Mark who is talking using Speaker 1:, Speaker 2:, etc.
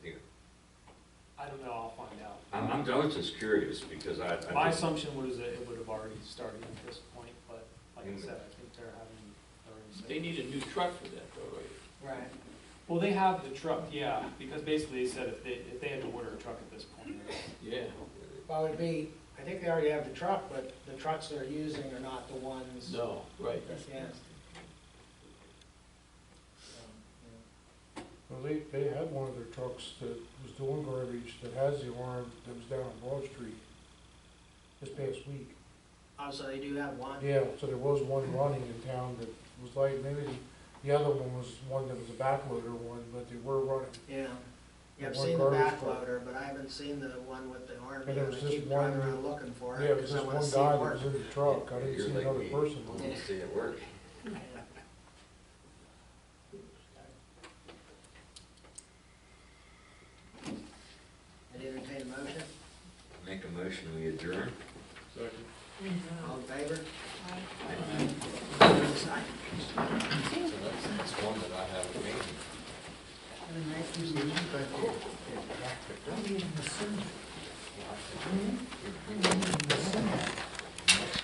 Speaker 1: find out.
Speaker 2: I'm, I'm, I was just curious because I. I
Speaker 1: My
Speaker 2: just-
Speaker 1: assumption was that it would have already started at this point, but like I
Speaker 2: Mm.
Speaker 1: said, I think they're having. they're
Speaker 3: They
Speaker 1: already
Speaker 3: need a new truck for that though, right?
Speaker 1: set. Right. Well, they have the truck, yeah, because basically they said if they, if they had to order a truck at this point.
Speaker 3: Yeah.
Speaker 4: Well, it'd be, I think they already have the truck, but the trucks they're using are not the ones.
Speaker 3: No, right.
Speaker 4: Yes. Yeah.
Speaker 5: Well, they, they had one of their trucks that was doing garbage, that has the alarm, that was down on Broad Street this past week.
Speaker 4: Oh, so they do have one?
Speaker 5: Yeah, so there was one running in town that was like, maybe the- the other one was one that was a backloader one, but they were running.
Speaker 4: Yeah. Yeah, I've
Speaker 5: One
Speaker 4: seen the
Speaker 5: garbage truck.
Speaker 4: backloader, but I haven't seen the one with the arm.
Speaker 5: And there was
Speaker 4: I
Speaker 5: just
Speaker 4: keep driving
Speaker 5: one-
Speaker 4: around looking for
Speaker 5: Yeah,
Speaker 4: it,
Speaker 5: it was
Speaker 4: because I
Speaker 5: just one
Speaker 4: wanna see
Speaker 5: guy
Speaker 4: it
Speaker 5: that
Speaker 4: work.
Speaker 5: was in the truck, I didn't
Speaker 2: You're
Speaker 5: see
Speaker 2: like
Speaker 5: another
Speaker 2: me.
Speaker 5: person.
Speaker 2: I wanna see it work.
Speaker 4: I'd entertain a motion,
Speaker 2: Make a motion, we adjourn.
Speaker 4: all in favor? Aye.
Speaker 2: So that's, that's one that I haven't made.